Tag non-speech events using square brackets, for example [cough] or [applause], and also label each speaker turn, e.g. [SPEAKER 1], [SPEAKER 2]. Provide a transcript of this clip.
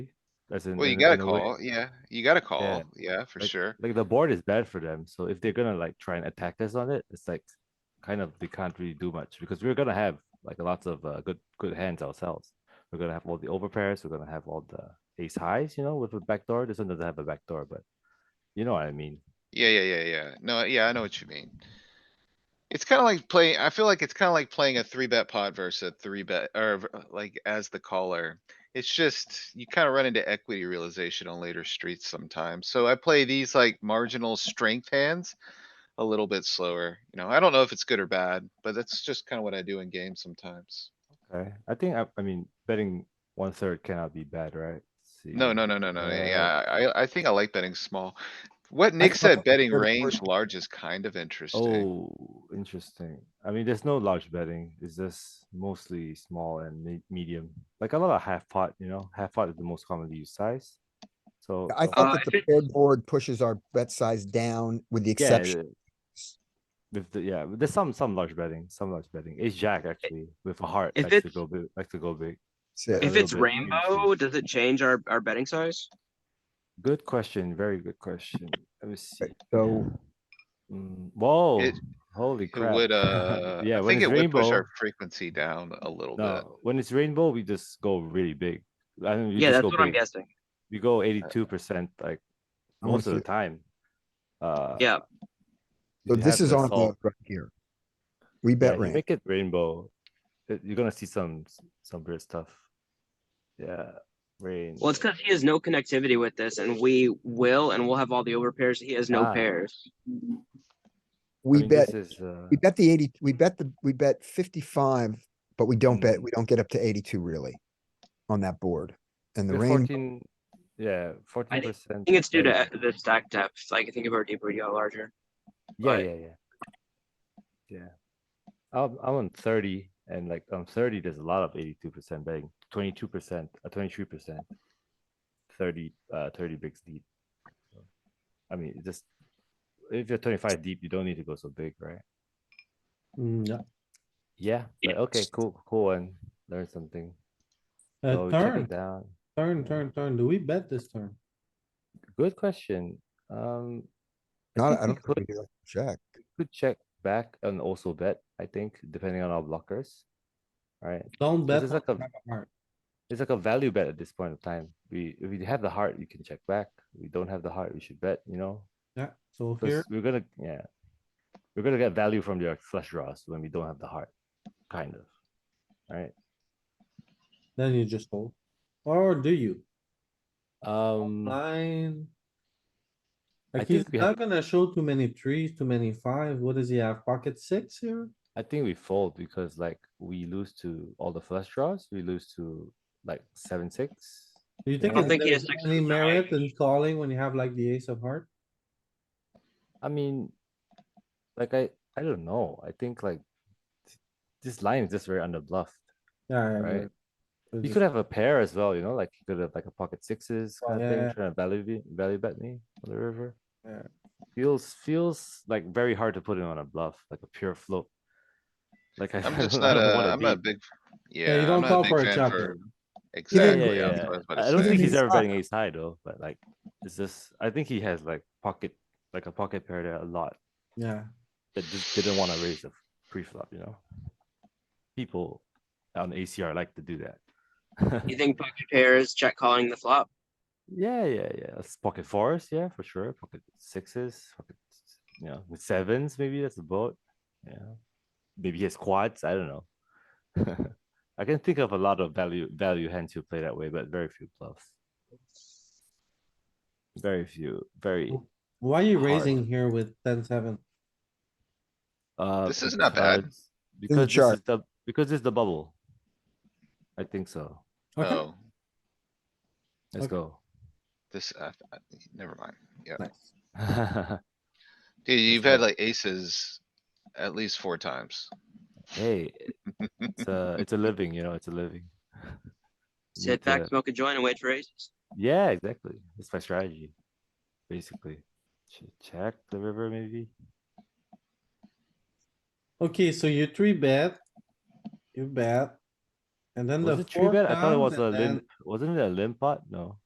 [SPEAKER 1] As in,
[SPEAKER 2] Well, you
[SPEAKER 1] in-
[SPEAKER 2] gotta
[SPEAKER 1] in a way-
[SPEAKER 2] call, yeah, you gotta call, yeah, for sure.
[SPEAKER 1] Like the board is bad for them, so if they're gonna like try and attack us on it, it's like kind of they can't really do much because we're gonna have like lots of uh, good good hands ourselves. We're gonna have all the overpairs. We're gonna have all the ace highs, you know, with a backdoor. This one doesn't have a backdoor, but you know what I mean.
[SPEAKER 2] Yeah, yeah, yeah, yeah. No, yeah, I know what you mean. It's kinda like playing, I feel like it's kinda like playing a three bet pot versus a three bet, or v- like as the caller. It's just, you kinda run into equity realization on later streets sometimes. So I play these like marginal strength hands. A little bit slower, you know, I don't know if it's good or bad, but that's just kinda what I do in games sometimes.
[SPEAKER 1] Okay, I think I, I mean betting one third cannot be bad, right? Let's see.
[SPEAKER 2] No, no, no, no, no,
[SPEAKER 1] Uh,
[SPEAKER 2] yeah, I, I think I like betting small. What Nick said,
[SPEAKER 1] thought
[SPEAKER 2] betting
[SPEAKER 1] third or
[SPEAKER 2] range
[SPEAKER 1] fourth-
[SPEAKER 2] large is kind of interesting.
[SPEAKER 1] Oh, interesting. I mean, there's no large betting. It's just mostly small and me- medium. Like a lot of half pot, you know, half pot is the most commonly used size. So
[SPEAKER 3] I
[SPEAKER 1] uh,
[SPEAKER 4] Uh,
[SPEAKER 3] think
[SPEAKER 4] I
[SPEAKER 3] that the
[SPEAKER 4] think-
[SPEAKER 3] paired board pushes our bet size down with the
[SPEAKER 1] yeah,
[SPEAKER 3] exception.
[SPEAKER 1] the- with the yeah, there's some some large betting, some large betting. Ace Jack actually with a heart
[SPEAKER 4] If
[SPEAKER 1] likes to
[SPEAKER 4] it's-
[SPEAKER 1] go big, likes to go big.
[SPEAKER 3] That's
[SPEAKER 1] a
[SPEAKER 4] If
[SPEAKER 3] it.
[SPEAKER 1] little
[SPEAKER 4] it's
[SPEAKER 1] bit
[SPEAKER 4] rainbow,
[SPEAKER 1] increased.
[SPEAKER 4] does it change our, our betting size?
[SPEAKER 1] Good question, very good question. Let me see.
[SPEAKER 3] So
[SPEAKER 1] Mm, whoa,
[SPEAKER 2] It-
[SPEAKER 1] holy
[SPEAKER 2] It
[SPEAKER 1] crap!
[SPEAKER 2] would, uh,
[SPEAKER 1] [laughs] yeah,
[SPEAKER 2] I
[SPEAKER 1] when
[SPEAKER 2] think
[SPEAKER 1] it's
[SPEAKER 2] it would push
[SPEAKER 1] rainbow,
[SPEAKER 2] our frequency down a little bit.
[SPEAKER 1] no, when it's rainbow, we just go really big. I mean, we
[SPEAKER 4] Yeah,
[SPEAKER 1] just
[SPEAKER 4] that's
[SPEAKER 1] go
[SPEAKER 4] what I'm
[SPEAKER 1] big.
[SPEAKER 4] guessing.
[SPEAKER 1] we
[SPEAKER 3] Uh,
[SPEAKER 1] go eighty-two percent like
[SPEAKER 3] I wanna
[SPEAKER 1] most of
[SPEAKER 3] see
[SPEAKER 1] the
[SPEAKER 3] it.
[SPEAKER 1] time. Uh,
[SPEAKER 4] Yeah,
[SPEAKER 1] you
[SPEAKER 3] so this
[SPEAKER 1] have
[SPEAKER 3] is
[SPEAKER 1] the
[SPEAKER 3] on
[SPEAKER 1] salt.
[SPEAKER 3] right here. We
[SPEAKER 1] Yeah,
[SPEAKER 3] bet
[SPEAKER 1] you
[SPEAKER 3] range.
[SPEAKER 1] make it rainbow. it- you're gonna see some some weird stuff. Yeah, rain.
[SPEAKER 4] well, it's because he has no connectivity with this and we will, and we'll have all the overpairs. He has no
[SPEAKER 1] Ah.
[SPEAKER 4] pairs.
[SPEAKER 3] We bet,
[SPEAKER 1] Is, uh,
[SPEAKER 3] we bet the eighty, we bet the, we bet fifty-five, but we don't bet,
[SPEAKER 1] Mm.
[SPEAKER 3] we don't get up to eighty-two really on that board. And the
[SPEAKER 1] we're
[SPEAKER 3] range,
[SPEAKER 1] fourteen. Yeah, fourteen
[SPEAKER 4] think-
[SPEAKER 1] percent.
[SPEAKER 4] I think it's due to the stack depth. Like, I think if our deeper, you got larger.
[SPEAKER 1] Yeah,
[SPEAKER 4] but-
[SPEAKER 1] yeah, yeah. Yeah. I'm I'm on thirty, and like on thirty, there's a lot of eighty-two percent betting, twenty-two percent, uh, twenty-three percent, thirty, uh, thirty bigs deep. So, I mean, it just if you're twenty-five deep, you don't need to go so big, right?
[SPEAKER 5] No,
[SPEAKER 1] Yeah.
[SPEAKER 4] Yeah.
[SPEAKER 1] But okay, cool, cool, and learn something. So
[SPEAKER 5] uh,
[SPEAKER 1] we check
[SPEAKER 5] turn,
[SPEAKER 1] it down.
[SPEAKER 5] turn, turn, turn. Do we bet this turn?
[SPEAKER 1] Good question. Um,
[SPEAKER 3] not,
[SPEAKER 1] think
[SPEAKER 3] I
[SPEAKER 1] we
[SPEAKER 3] don't think we
[SPEAKER 1] could-
[SPEAKER 3] do it. check.
[SPEAKER 1] could check back and also bet. I think depending on our blockers. Right.
[SPEAKER 5] Don't bet.
[SPEAKER 1] it's like
[SPEAKER 5] on
[SPEAKER 1] a-
[SPEAKER 5] our heart.
[SPEAKER 1] It's like a value bet at this point of time. We if we have the heart, you can check back. We don't have the heart, we should bet, you know?
[SPEAKER 5] Yeah, so
[SPEAKER 1] 'Cause
[SPEAKER 5] here,
[SPEAKER 1] we're gonna yeah. We're gonna get value from their flush draws when we don't have the heart, kind of. Alright.
[SPEAKER 5] then you just fold. Or do you?
[SPEAKER 1] Um
[SPEAKER 5] Line.
[SPEAKER 1] I
[SPEAKER 5] Like he's
[SPEAKER 1] think we have-
[SPEAKER 5] not gonna show too many threes, too many five. What does he have? Pocket six here?
[SPEAKER 1] I think we fold because like we lose to all the flush draws, we lose to like seven, six.
[SPEAKER 5] Do you think
[SPEAKER 1] I don't
[SPEAKER 4] think he
[SPEAKER 5] there's
[SPEAKER 4] has six
[SPEAKER 5] any
[SPEAKER 4] of
[SPEAKER 5] merit in calling when you have like the ace of heart?
[SPEAKER 1] I mean, like I I don't know. I think like this line is just very underbluffed.
[SPEAKER 5] Yeah. I
[SPEAKER 1] Right.
[SPEAKER 5] agree. It's
[SPEAKER 1] You
[SPEAKER 5] just-
[SPEAKER 1] could have a pair as well, you know, like you could have like a pocket sixes
[SPEAKER 5] Oh,
[SPEAKER 1] kind of thing,
[SPEAKER 5] yeah.
[SPEAKER 1] trying to value be- value bet me on the river.
[SPEAKER 5] Yeah.
[SPEAKER 1] Feels feels like very hard to put in on a bluff, like a pure float. Like I, [laughs]
[SPEAKER 2] I'm just
[SPEAKER 1] I
[SPEAKER 2] not
[SPEAKER 1] don't
[SPEAKER 2] a,
[SPEAKER 1] wanna
[SPEAKER 2] I'm not a
[SPEAKER 1] be-
[SPEAKER 2] big,
[SPEAKER 5] you
[SPEAKER 2] yeah,
[SPEAKER 5] don't
[SPEAKER 2] I'm not
[SPEAKER 5] call
[SPEAKER 2] a big
[SPEAKER 5] for a
[SPEAKER 2] fan for.
[SPEAKER 5] chopper.
[SPEAKER 1] Yeah, yeah,
[SPEAKER 2] Exactly,
[SPEAKER 1] yeah,
[SPEAKER 2] yeah,
[SPEAKER 1] yeah.
[SPEAKER 2] that's what I was about to
[SPEAKER 1] I don't
[SPEAKER 2] say.
[SPEAKER 1] think he's
[SPEAKER 3] He's
[SPEAKER 1] ever
[SPEAKER 3] not.
[SPEAKER 1] betting ace high though, but like it's just I think he has like pocket like a pocket pair there a lot
[SPEAKER 5] Yeah,
[SPEAKER 1] that just didn't want to raise the pre-flop, you know. People on ACR like to do that. [laughs]
[SPEAKER 4] You think pocket pairs, check calling the flop?
[SPEAKER 1] Yeah, yeah, yeah. It's pocket fours, yeah, for sure. Pocket sixes, pocket, s- you know, with sevens, maybe that's a boat. Yeah, maybe he has quads. I don't know. [laughs] I can think of a lot of value value hands who play that way, but very few bluffs. Very few. Very.
[SPEAKER 5] Cool. why are you
[SPEAKER 1] Heart.
[SPEAKER 5] raising here with ten, seven?
[SPEAKER 1] Uh,
[SPEAKER 2] This is not bad.
[SPEAKER 1] because- Because this
[SPEAKER 3] chart.
[SPEAKER 1] is the because it's the bubble. I think so.
[SPEAKER 5] Okay,
[SPEAKER 1] [laughs]
[SPEAKER 2] Oh,
[SPEAKER 1] Let's
[SPEAKER 5] Okay.
[SPEAKER 1] go. [laughs]
[SPEAKER 2] this, uh, uh, never mind, yeah.
[SPEAKER 5] nice.
[SPEAKER 2] Dude, you've
[SPEAKER 1] not-
[SPEAKER 2] had like aces at least four times.
[SPEAKER 1] hey, it's a it's a living, you know. It's a living. [laughs] You need
[SPEAKER 4] Sit
[SPEAKER 1] to-
[SPEAKER 4] back, smoke a joint and wait for aces.
[SPEAKER 1] Yeah, exactly. That's my strategy, basically. Ch- Check the river, maybe.
[SPEAKER 5] Okay, so you three bet. You bet. And then the
[SPEAKER 1] Was it tree
[SPEAKER 5] four
[SPEAKER 1] bet? I thought it
[SPEAKER 5] comes
[SPEAKER 1] was a
[SPEAKER 5] and then
[SPEAKER 1] limp. Wasn't it a limp pot? No.